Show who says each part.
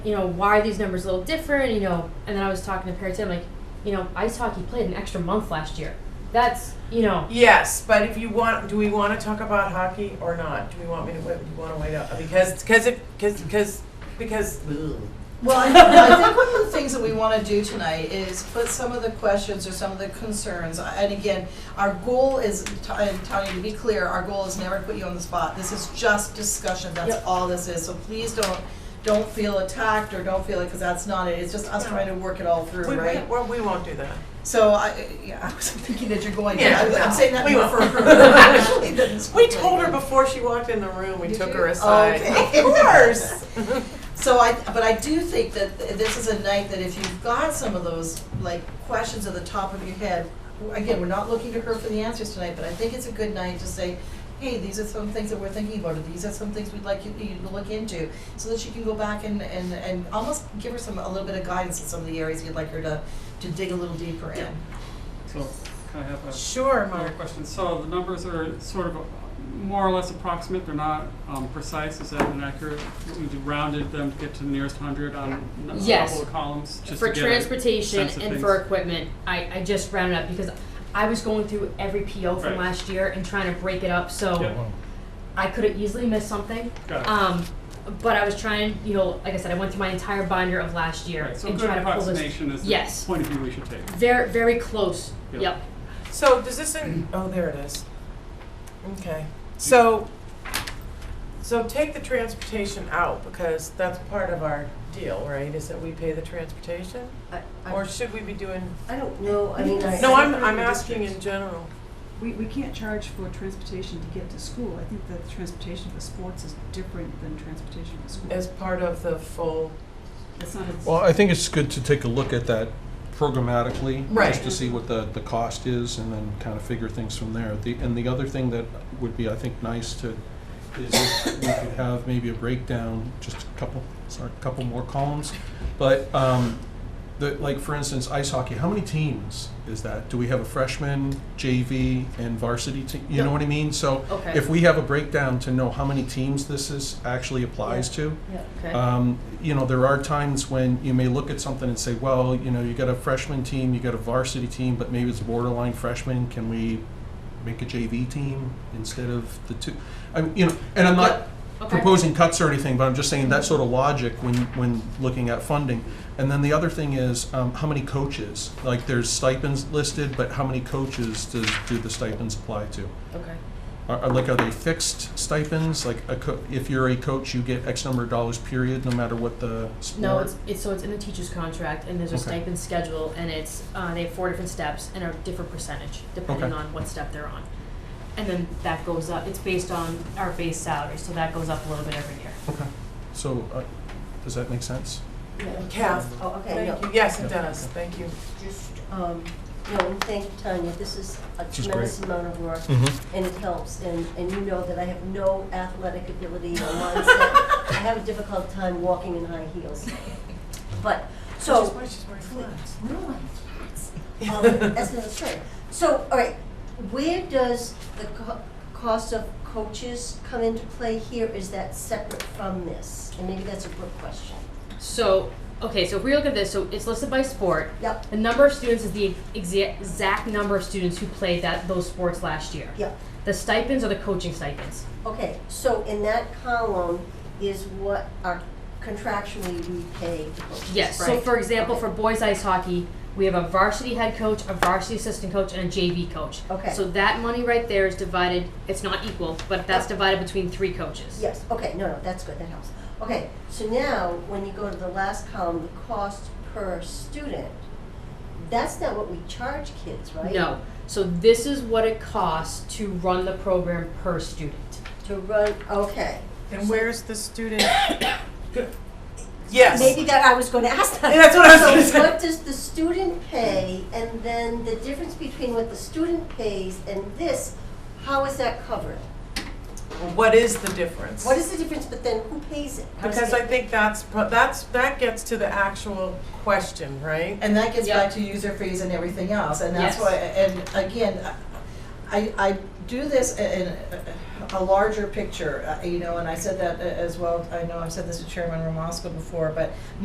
Speaker 1: you know, why are these numbers a little different? You know, and then I was talking to Perry Tim, like, you know, ice hockey played an extra month last year. That's, you know,
Speaker 2: Yes, but if you want, do we want to talk about hockey or not? Do we want me to wait? Do you want to wait up because because if because because because
Speaker 3: Well, I I think one of the things that we want to do tonight is put some of the questions or some of the concerns, and again, our goal is, Ta- and Tanya, to be clear, our goal is never to put you on the spot. This is just discussion, that's
Speaker 1: Yep.
Speaker 3: all this is, so please don't, don't feel attacked or don't feel it, because that's not it. It's just us trying to work it all
Speaker 2: we,
Speaker 3: through,
Speaker 2: we,
Speaker 3: right?
Speaker 2: well, we won't do that.
Speaker 3: So I, yeah, I wasn't thinking that you're going to,
Speaker 2: Yeah,
Speaker 3: I- I'm saying that
Speaker 2: we
Speaker 3: more
Speaker 2: won't.
Speaker 3: for her. Actually, than it's-
Speaker 2: We told her before she walked in the room. We
Speaker 3: Did
Speaker 2: took
Speaker 3: you?
Speaker 2: her aside.
Speaker 3: Okay.
Speaker 2: Of course.
Speaker 3: So I, but I do think that th- this is a night that if you've got some of those, like, questions at the top of your head, w- again, we're not looking to her for the answers tonight, but I think it's a good night to say, hey, these are some things that we're thinking about, or these are some things we'd like you, you to look into, so that she can go back and, and, and almost give her some, a little bit of guidance in some of the areas you'd like her to, to dig a little deeper in.
Speaker 4: So can I have a
Speaker 2: Sure,
Speaker 4: another
Speaker 2: Mark.
Speaker 4: question? So the numbers are sort of more or less approximate, they're not um, precise, is that inaccurate? We rounded them to get to the nearest hundred on n- a
Speaker 1: Yes.
Speaker 4: couple of columns, just
Speaker 1: for
Speaker 4: to get a
Speaker 1: transportation
Speaker 4: sense of
Speaker 1: and
Speaker 4: things.
Speaker 1: for equipment, I, I just rounded up because I was going through every PO from
Speaker 4: Right.
Speaker 1: last year and trying to break it up so
Speaker 4: Yeah.
Speaker 1: I could have easily missed something.
Speaker 4: Got it.
Speaker 1: Um, but I was trying, you know, like I said, I went through my entire binder of last year
Speaker 4: Right, so a
Speaker 1: and
Speaker 4: good
Speaker 1: trying to pull this.
Speaker 4: approximation is
Speaker 1: Yes.
Speaker 4: the point of view we should take.
Speaker 1: Very, very close.
Speaker 4: Yep.
Speaker 1: Yep.
Speaker 2: So does this? In, oh, there it is. Okay. So so take the transportation out because that's part of our deal, right? Is that we pay the transportation,
Speaker 5: I,
Speaker 2: or
Speaker 5: I,
Speaker 2: should we be doing?
Speaker 5: I don't know, I mean, I.
Speaker 2: No,
Speaker 5: I
Speaker 2: I'm
Speaker 5: don't
Speaker 2: I'm
Speaker 5: know the
Speaker 2: asking in
Speaker 5: districts.
Speaker 2: general.
Speaker 6: We, we can't charge for transportation to get to school. I think that transportation for sports is different than transportation for school.
Speaker 2: as part of the full.
Speaker 6: It's not a.
Speaker 7: Well, I think it's good to take a look at that programmatically,
Speaker 2: Right.
Speaker 7: just to see what the, the cost is, and then kind of figure things from there. The, and the other thing that would be, I think, nice to, is if we could have maybe a breakdown, just a couple, sorry, a couple more columns. But, um, the, like, for instance, ice hockey, how many teams is that? Do we have a freshman, JV, and varsity team? You know what I mean? So
Speaker 1: Okay.
Speaker 7: if we have a breakdown to know how many teams this is, actually applies to,
Speaker 5: Yeah.
Speaker 1: Okay.
Speaker 7: um, you know, there are times when you may look at something and say, well, you know, you got a freshman team, you got a varsity team, but maybe it's borderline freshman. Can we make a JV team instead of the two? I mean, you know, and I'm not
Speaker 1: Okay.
Speaker 7: proposing cuts or anything, but I'm just saying that sort of logic when, when looking at funding. And then the other thing is, um, how many coaches? Like, there's stipends listed, but how many coaches does, do the stipends apply to?
Speaker 1: okay.
Speaker 7: Are, are- like, are they fixed stipends? Like, a co- if you're a coach, you get X number of dollars, period, no matter what the sport?
Speaker 1: No, it's, it's, so it's in the teacher's contract, and there's a
Speaker 7: Okay.
Speaker 1: stipend schedule, and it's, uh, they have four different steps and a different percentage, depending
Speaker 7: Okay.
Speaker 1: on what step they're on. And then that goes up, it's based on our base salary, so that goes up a little bit every year.
Speaker 7: Okay. So, uh, does that make sense?
Speaker 5: Yeah.
Speaker 2: Kath,
Speaker 5: Oh, okay,
Speaker 2: Thank you.
Speaker 5: no,
Speaker 2: Yes, it does. Thank you.
Speaker 5: just, um, no, and thank you, Tanya, this is a
Speaker 7: is
Speaker 5: tremendous amount of work,
Speaker 7: Mm-hmm.
Speaker 5: and it helps, and, and you know that I have no athletic ability or mindset. I have a difficult time walking in high heels. But, so.
Speaker 2: Which is why she's wearing flats.
Speaker 5: No, I- um, that's another story. So, all right, where does the co- cost of coaches come into play here? Is that separate from this? And maybe that's a Brooke question.
Speaker 1: So, okay, so if we look at this, so it's listed by sport.
Speaker 5: Yep,
Speaker 1: The number of students is the exa- exact number of students who played that, those sports last year.
Speaker 5: yep.
Speaker 1: The stipends are the coaching stipends.
Speaker 5: Okay, so in that column is what our contractually we pay the coaches,
Speaker 1: Yes, so
Speaker 5: right?
Speaker 1: for example,
Speaker 5: Okay.
Speaker 1: for boys ice hockey, we have a varsity head coach, a varsity assistant coach, and a JV coach.
Speaker 5: Okay.
Speaker 1: So that money right there is divided, it's not equal, but that's divided between three coaches.
Speaker 5: Yes, okay, no, no, that's good, that helps. Okay, so now, when you go to the last column, the cost per student, that's not what we charge kids, right?
Speaker 1: No, so this is what it costs to run the program per student.
Speaker 5: To run, okay.
Speaker 2: And where's the student? Yes.
Speaker 5: Maybe that I was gonna ask that.
Speaker 2: Yeah, that's what I was gonna
Speaker 5: So
Speaker 2: say.
Speaker 5: what does the student pay, and then the difference between what the student pays and this, how is that covered?
Speaker 2: What is the difference?
Speaker 5: What is the difference, but then who pays it? How does
Speaker 2: Because
Speaker 5: it
Speaker 2: I
Speaker 5: get-
Speaker 2: think that's, pro- that's, that gets to the actual question, right?
Speaker 3: And that gets
Speaker 1: Yeah.
Speaker 3: back to user fees and everything else, and that's
Speaker 1: Yes.
Speaker 3: why, and again, I- I, I do this i- in a- a larger picture, uh, you know, and I said that a- as well, I know I've said this to Chairman Ramasco before, but